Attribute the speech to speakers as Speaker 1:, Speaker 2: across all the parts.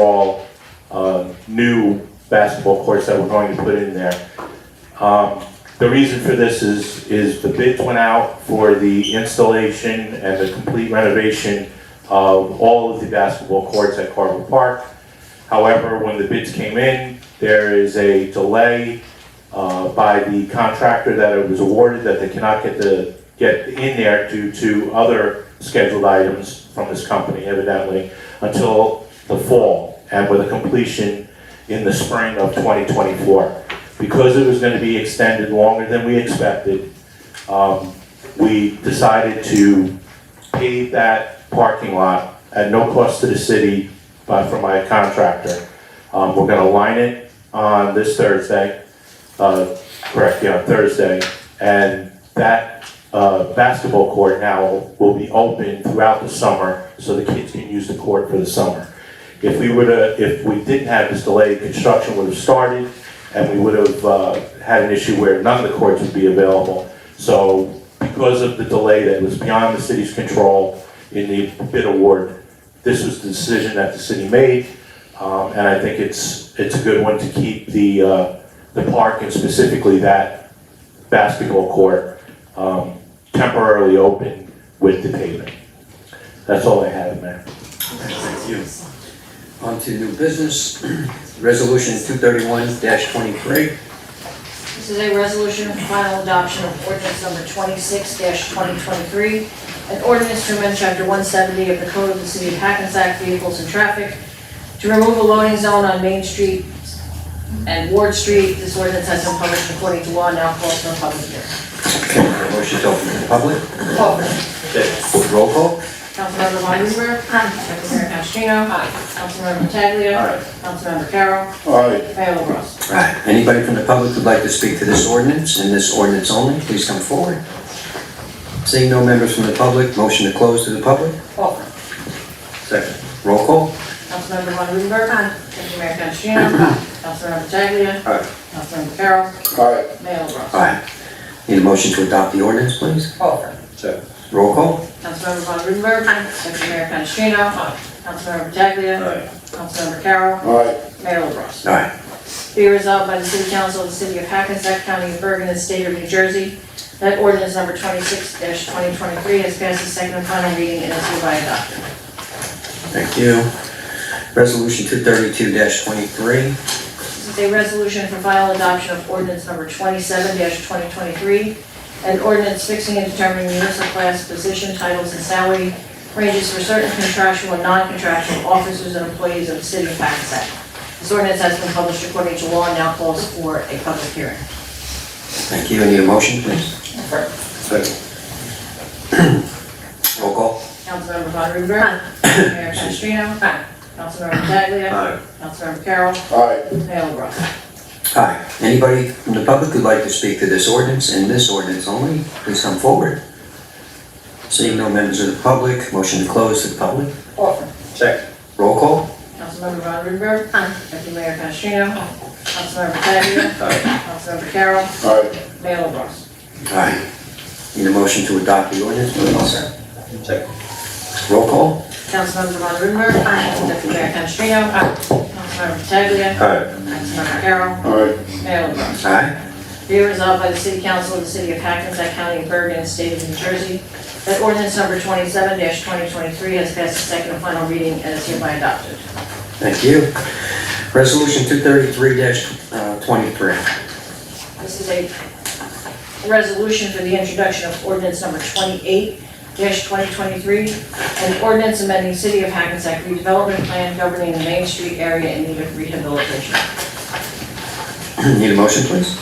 Speaker 1: overall uh, new basketball courts that we're going to put in there. Um, The reason for this is, is the bids went out for the installation and the complete renovation of all of the basketball courts at Carver Park. However, when the bids came in, there is a delay uh, by the contractor that it was awarded that they cannot get the, get in there due to other scheduled items from this company evidently until the fall and with a completion in the spring of 2024. Because it was going to be extended longer than we expected, um, we decided to pave that parking lot at no cost to the city, but from my contractor. Um, We're gonna line it on this Thursday, uh, correct, yeah, Thursday, and that uh, basketball court now will be open throughout the summer, so the kids can use the court for the summer. If we would have, if we didn't have this delay, construction would have started, and we would have uh, had an issue where none of the courts would be available. So because of the delay that was beyond the city's control in the bid award, this was the decision that the city made, um, and I think it's, it's a good one to keep the, uh, the park and specifically that basketball court um, temporarily open with the pavement. That's all I have, Mayor.
Speaker 2: Thank you. On to new business, resolution two thirty-one twenty-three.
Speaker 3: This is a resolution of final adoption of ordinance number twenty-six twenty twenty-three, an ordinance to amend chapter one seventy of the Code of the City of Hackensack Vehicles and Traffic to remove a loading zone on Main Street and Ward Street. This ordinance has been published according to law and now calls for a public hearing.
Speaker 2: Motion to open to the public, roll call.
Speaker 3: Councilmember Meisenberg. Aye. Councilmember Canestrino. Aye. Councilmember Pataglia.
Speaker 2: Aye.
Speaker 3: Councilmember Carroll.
Speaker 1: Aye.
Speaker 3: Mayor LaBrus.
Speaker 2: Right, anybody from the public who'd like to speak to this ordinance and this ordinance only, please come forward. Seeing no members from the public, motion to close to the public,
Speaker 3: Offer.
Speaker 2: second, roll call.
Speaker 3: Councilmember Von Rudenberg. Aye. Councilmember Canestrino. Aye. Councilmember Pataglia.
Speaker 2: Aye.
Speaker 3: Councilmember Carroll.
Speaker 2: Aye.
Speaker 3: Mayor LaBrus.
Speaker 2: Aye. Need a motion to adopt the ordinance, please,
Speaker 3: Over.
Speaker 2: second, roll call.
Speaker 3: Councilmember Von Rudenberg. Aye. Deputy Mayor Canestrino. Aye. Councilmember Pataglia.
Speaker 2: Aye.
Speaker 3: Councilmember Carroll.
Speaker 2: Aye.
Speaker 3: Mayor LaBrus.
Speaker 2: Aye,
Speaker 3: Be resolved by the City Council of the City of Hackensack County of Bergen and State of New Jersey that ordinance number twenty-six twenty twenty-three has passed its second and final reading and is hereby adopted.
Speaker 2: thank you. Resolution two thirty-two twenty-three,
Speaker 3: This is a resolution for final adoption of ordinance number twenty-seven twenty twenty-three, an ordinance fixing and determining municipal class position titles and salary ranges for certain contractual and non-contractual officers and employees of the city of Hackensack. This ordinance has been published according to law and now calls for a public hearing.
Speaker 2: thank you, need a motion, please. Second. Roll call.
Speaker 3: Councilmember Von Rudenberg. Mayor Canestrino. Councilmember Pataglia. Councilmember Carroll. Mayor LaBrus.
Speaker 2: Aye. Anybody from the public who'd like to speak to this ordinance and this ordinance only, please come forward. Seeing no members of the public, motion to close to the public.
Speaker 3: Orford.
Speaker 2: Second. Roll call.
Speaker 3: Councilmember Von Rudenberg. Deputy Mayor Canestrino. Councilmember Pataglia.
Speaker 2: Aye.
Speaker 3: Councilmember Carroll. Mayor LaBrus.
Speaker 2: Aye. Need a motion to adopt the ordinance, please. Second. Roll call.
Speaker 3: Councilmember Von Rudenberg. Deputy Mayor Canestrino. Councilmember Pataglia.
Speaker 2: Aye.
Speaker 3: Councilmember Carroll. Mayor LaBrus.
Speaker 2: Aye.
Speaker 3: Be it resolved by the City Council of the City of Hackensack County of Bergen and State of New Jersey that ordinance number twenty-seven twenty twenty-three has passed its second and final reading and is hereby adopted.
Speaker 2: Thank you. Resolution two thirty-three uh, twenty-three.
Speaker 3: This is a resolution for the introduction of ordinance number twenty-eight twenty twenty-three, an ordinance amending City of Hackensack redevelopment plan governing the Main Street area in need of rehabilitation.
Speaker 2: Need a motion, please.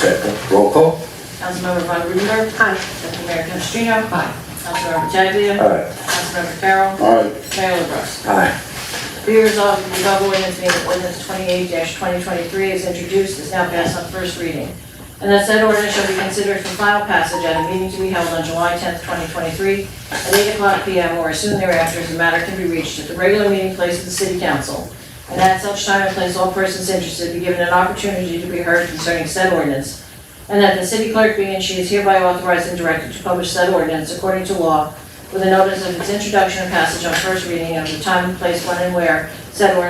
Speaker 2: Second. Roll call.
Speaker 3: Councilmember Von Rudenberg. Deputy Mayor Canestrino. Councilmember Pataglia.
Speaker 2: Aye.
Speaker 3: Councilmember Carroll. Mayor LaBrus.
Speaker 2: Aye.
Speaker 3: Be resolved that the above ordinance being ordinance twenty-eight twenty twenty-three is introduced, is now passed on first reading. And that said ordinance shall be considered for final passage at a meeting to be held on July tenth, twenty twenty-three, at eight o'clock P M or as soon thereafter as the matter can be reached at the regular meeting place of the city council. And at such time and place, all persons interested be given an opportunity to be heard concerning said ordinance. And that the city clerk being and she is hereby authorized and directed to publish said ordinance according to law with a notice of its introduction and passage on first reading and of the time and place when and where said ordinance